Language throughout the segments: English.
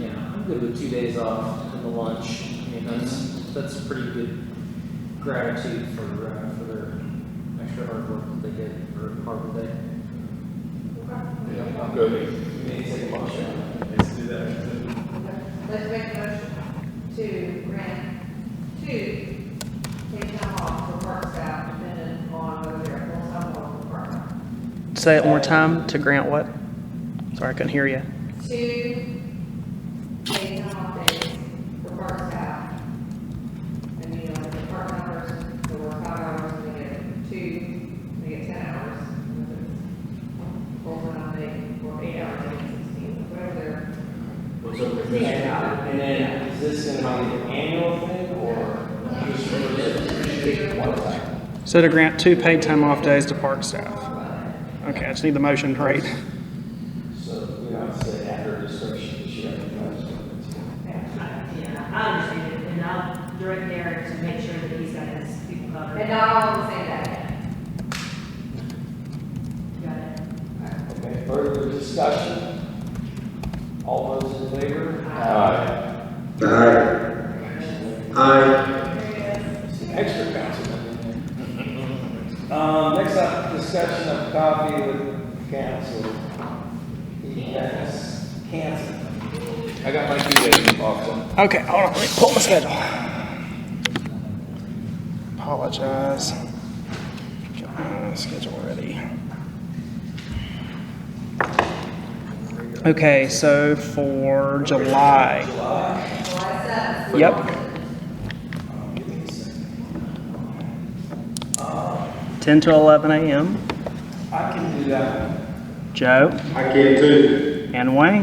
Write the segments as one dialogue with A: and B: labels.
A: I'm good with two days off and the lunch. I mean, that's, that's pretty good gratitude for, uh, for their extra hard work that they did for Harbor Day.
B: Yeah, I'm good.
A: Maybe take a motion.
B: Let's do that.
C: Let's make a motion to grant, to take time off for park staff dependent on whether they're full-time or part-time.
D: Say it one more time to grant what? Sorry, I couldn't hear you.
C: To take time off days for park staff. And, you know, the park hours, they work five hours, and they get two, they get ten hours. Full-time day, or eight hours, they get sixteen, whatever their
E: What's up with this? And then, is this going to be an annual thing, or? Just for
D: So to grant two paid time off days to park staff. Okay, I just need the motion, right?
E: So, you know, it's the after description, you should have.
F: Yeah, I understand it, and I'll direct Derek to make sure that he's got his people covered.
C: And not all the same day.
F: Got it.
E: Okay, further discussion? All those in favor?
B: Aye.
G: Aye. Aye.
E: Some extra councilman in there. Um, next up, discussion of coffee with council. Yes, council.
B: I got my two days off, so.
D: Okay, hold on, let me pull my schedule. Apologize. Get my schedule ready. Okay, so for July. Yep. Ten to eleven AM,
E: I can do that.
D: Joe
G: I can too.
D: and Wayne.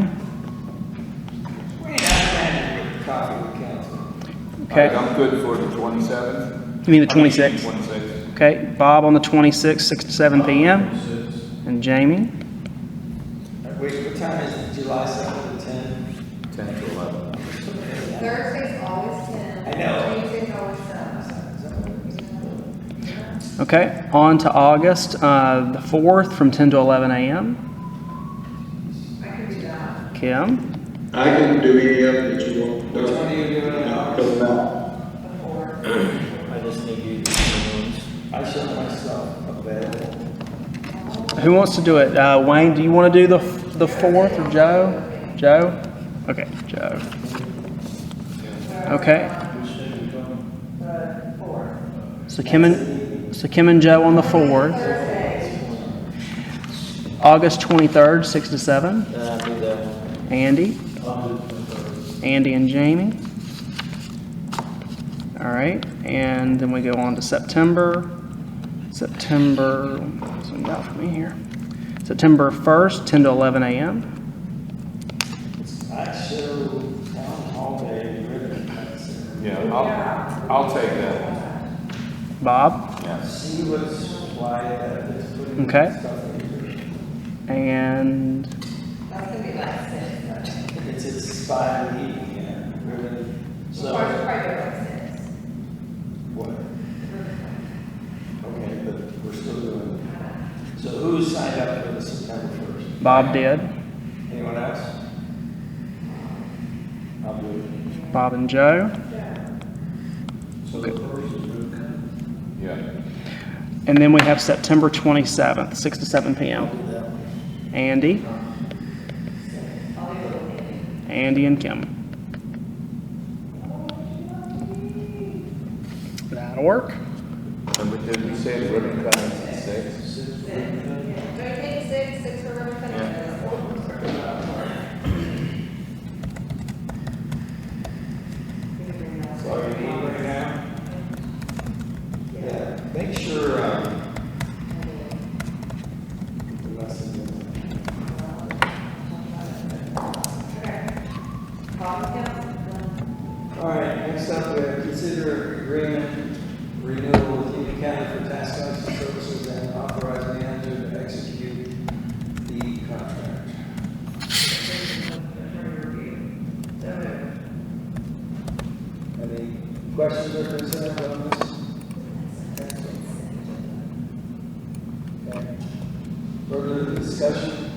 E: We ain't had a coffee with council.
D: Okay,
B: I'm good for the twenty-seventh.
D: you mean the twenty-sixth?
B: Twenty-sixth.
D: Okay, Bob on the twenty-sixth, six to seven PM. And Jamie?
E: Wait, what time is it? July seventh to ten?
B: Ten to eleven.
C: Thursday's always ten.
E: I know.
C: Tuesday's always seven.
D: Okay, on to August, uh, the 4th from 10 to 11 a.m.
C: I could do that.
D: Kim?
G: I can do any of it that you want.
E: Which one are
G: Doesn't
E: you doing in August?
G: doesn't matter.
C: Before.
A: I just need you to do the names.
E: I showed myself available.
D: Who wants to do it? Uh, Wayne, do you want to do the, the 4th or Joe? Joe? Okay, Joe. Okay. So Kim and, so Kim and Joe on the 4th. August 23rd, 6 to 7.
A: Uh, do the,
D: Andy?
A: I'll do the,
D: Andy and Jamie. All right, and then we go on to September. September, what's we got for me here? September 1st, 10 to 11 a.m.
E: I showed town hall day, ribbon cutting.
B: Yeah, I'll, I'll take that.
D: Bob,
B: Yes.
E: She was quiet, I was putting
D: Okay.
E: stuff in
D: and
C: That's gonna be like six.
E: here. It's inspired eating, yeah, ribbon.
C: Or
E: So,
C: probably like six.
E: what? Okay, but we're still doing it. So who signed up for the September first?
D: Bob did.
E: Anyone else? I'll do it.
D: Bob and Joe.
B: Yeah.
D: And then we have September 27th, 6 to 7 p.m. Andy. Andy and Kim. That'll work.
B: And we did, we say the ribbon cutting at six?
C: Do we take six, six for ribbon cutting?
E: So are you meeting right now? Yeah, make sure, um, the lesson,
C: Bottom count?
E: all right, next up, we have consider agreement renewal with Union County for task officer services and authorize manager to execute the contract. Any questions or concerns on this? Okay. Further discussion?